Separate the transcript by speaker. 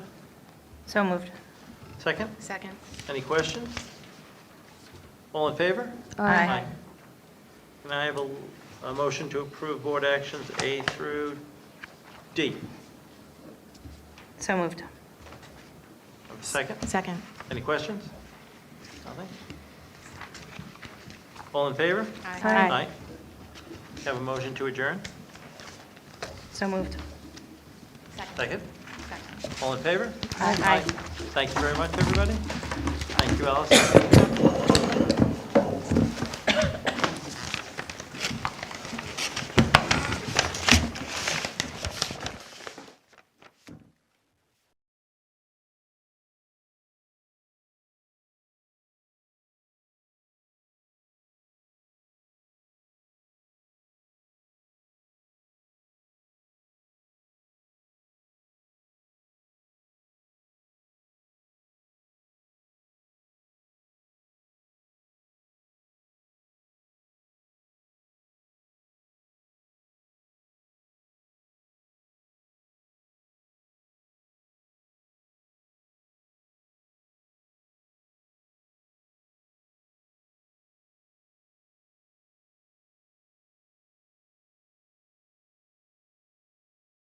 Speaker 1: So moved.
Speaker 2: Second?
Speaker 3: Second.
Speaker 2: Any questions? All in favor?
Speaker 1: Aye.
Speaker 2: Can I have a, a motion to approve board actions A through D?
Speaker 1: So moved.
Speaker 2: Second?
Speaker 3: Second.
Speaker 2: Any questions? Nothing? All in favor?
Speaker 1: Aye.
Speaker 2: Have a motion to adjourn?
Speaker 1: So moved.
Speaker 2: Second? All in favor?
Speaker 1: Aye.
Speaker 2: Thank you very much, everybody. Thank you, Allison.